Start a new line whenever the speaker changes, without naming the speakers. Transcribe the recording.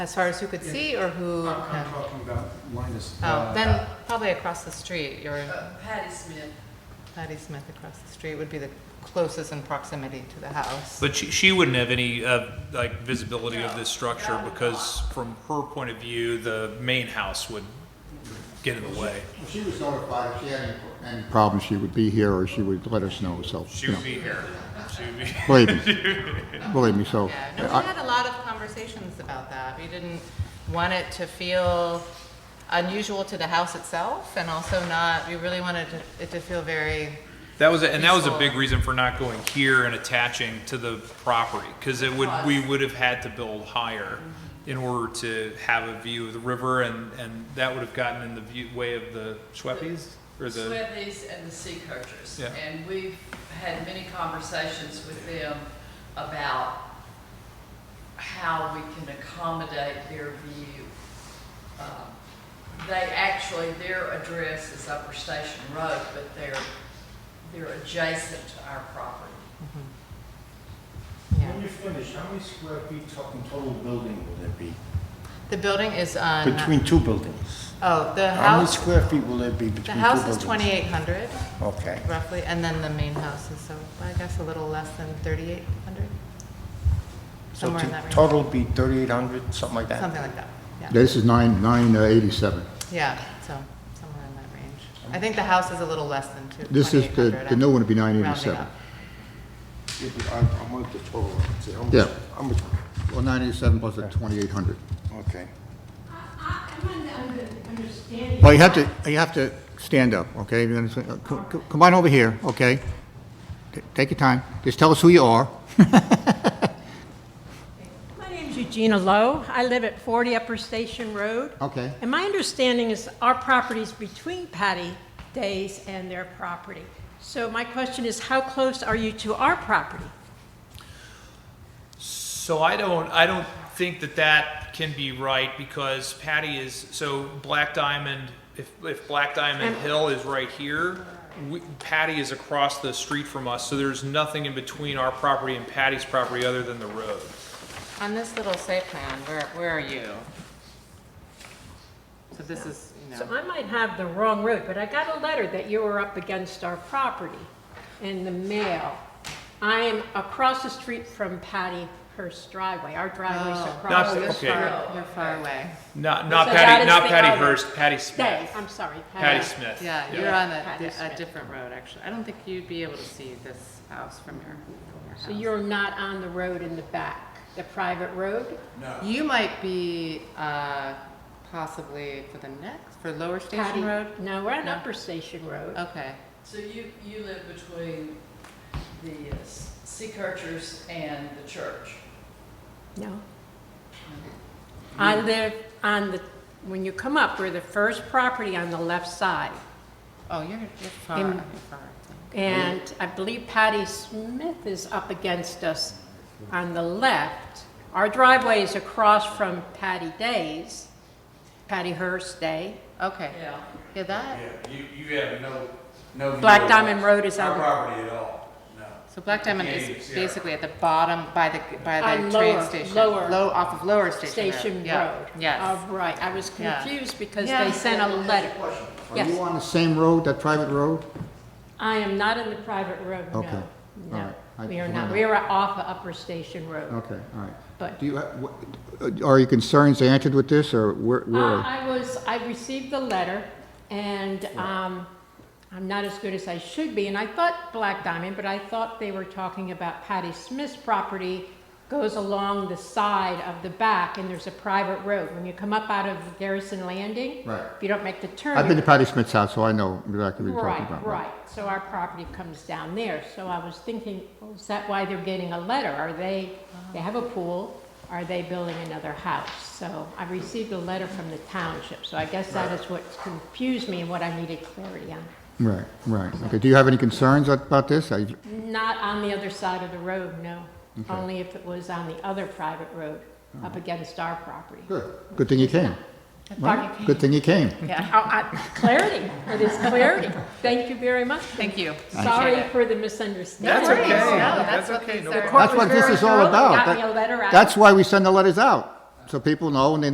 As far as who could see or who?
I'm I'm talking about Linus.
Oh,
uh,
then probably across the street, your
Uh, Patty Smith.
Patty Smith across the street would be the closest in proximity to the house.
But she, she wouldn't have any, uh, like, visibility of this structure
No.
because from her point of view, the main house would get in the way.
If she was notified, if she had any any problems, she would be here, or she would let us know, so,
She
you know,
would be here. She would be.
believe me, believe me, so.
Yeah, no, we
I-
had a lot of conversations about that. We didn't want it to feel unusual to the house itself and also not, we really wanted to- it to feel very,
That was, a- and that was a big reason for not going here and attaching to the property, because it would, we would have had to build higher in order to have a view of the river, and, and that would have gotten in the view, way of the Schweppes, or the,
Swethies and the Sea Coachers.
Yeah.
And we've had many conversations with them about how we can accommodate their view. Um, They actually, their address is Upper Station Road, but they're, they're adjacent to our property.
yeah.
When you finish, how many square feet top in total building will there be?
The building is on.
Between two buildings?
Oh, the
How many
house,
square feet will there be between two
the
buildings?
house is 2,800
Okay.
roughly, and then the main house is, so I guess a little less than 3,800,
So
somewhere in
to-
that range.
total be 3,800, something like that?
something like that, yeah.
This is nine, nine uh, eighty-seven.
Yeah, so somewhere in that range. I think the house is a little less than two.
This is, the,
2,800.
the new one would be nine
I'm rounding
eighty-seven.
up.
Yeah, but I I want the total, see, how much-
Yeah.
how much-
Well, nine eighty-seven plus the twenty-eight hundred.
okay.
I, I, I'm not under- understanding.
Well, you have to, you have to stand up, okay? You understand? Uh, co- co- Come on over here, okay? T- Take your time, just tell us who you are.
My name's Eugenia Lowe. I live at 40 Upper Station Road.
Okay.
And my understanding is our property's between Patty Days and their property. So my question is, how close are you to our property?
so I don't, I don't think that that can be right, because Patty is, so Black Diamond, if, if Black Diamond Hill is right here, we- Patty is across the street from us, so there's nothing in between our property and Patty's property other than the road.
On this little site plan, where, where are you? So this is, you
So
know,
I might have the wrong road, but I got a letter that you were up against our property in the mail. I am across the street from Patty Hurst driveway. Our driveway's
Oh.
across
Not-
the
okay.
street.
you're far away.
Not, not
So that
Patty,
is
not
the
Patty
other.
Hurst, Patty
Days,
Smith.
I'm sorry.
Patty Smith.
Yeah, you're on
Patty
a, a
Smith.
different road, actually. I don't think you'd be able to see this house from your, from your house.
So you're not on the road in the back, the private road?
You might be, uh, possibly for the next, for Lower
Patty-
Station Road?
No, we're on
No. Oh.
Upper Station Road.
Okay,
So you, you live between the uh, Sea Coachers and the church?
No. I live on the, when you come up, we're the first property on the left side.
oh, you're, you're far,
In-
you're far. I think.
And I believe Patty Smith is up against us on the left. Our driveway is across from Patty Day's, Patty Hearst Day.
Okay,
Yeah.
yeah, that,
you, you have no, no.
Black Diamond Road is
Our
on the
property at all, no.
So Black Diamond
Yeah, you
is
can see it.
basically at the bottom by the, by
Uh,
the
lower-
train station.
lower-
Low, off of Lower Station Road.
Station
Yeah,
Road.
Yes.
Oh, right, I was
Yeah.
confused because
Yeah.
they sent a letter.
Are you
Yes.
on the same road, that private road?
I am not in the private road,
Okay.
no.
All
No,
right. I
we are
just
not,
wondered.
we are off of Upper Station Road.
Okay, all right.
But
Do you, ha- what- uh, are your concerns answered with this, or where, where?
Uh,
are-
I was, I received the letter, and um, I'm not as good as I should be, and I thought Black Diamond, but I thought they were talking about Patty Smith's property goes along the side of the back, and there's a private road. When you come up out of Garrison Landing,
Right.
if you don't make the turn.
I've been to
you're-
Patty Smith's house, so I know exactly what you're talking
Right,
about.
right, so our property comes down there, so I was thinking, well, is that why they're getting a letter? Are they, they have a pool, are they building another house? So I received a letter from the township, so I guess that is what confused me and what I needed clarity on.
Right, right. Okay, do you have any concerns a- about this? I-
Not on the other side of the road, no, only if it was on the other private road, up against our property.
Good, good thing you came.
Pardon?
Good thing you came.
Yeah,
Oh, I- Clarity, it is clarity, thank you very much.
thank you.
Sorry
Appreciate it.
for the
That's
misunderstanding.
worries.
okay.
No,
That's
that's what
okay.
these
No
are.
problem.
Court
That's
was
what this
very
is all
thorough.
about.
Got
That-
me a letter out.
That's why we send the letters out, so people know and they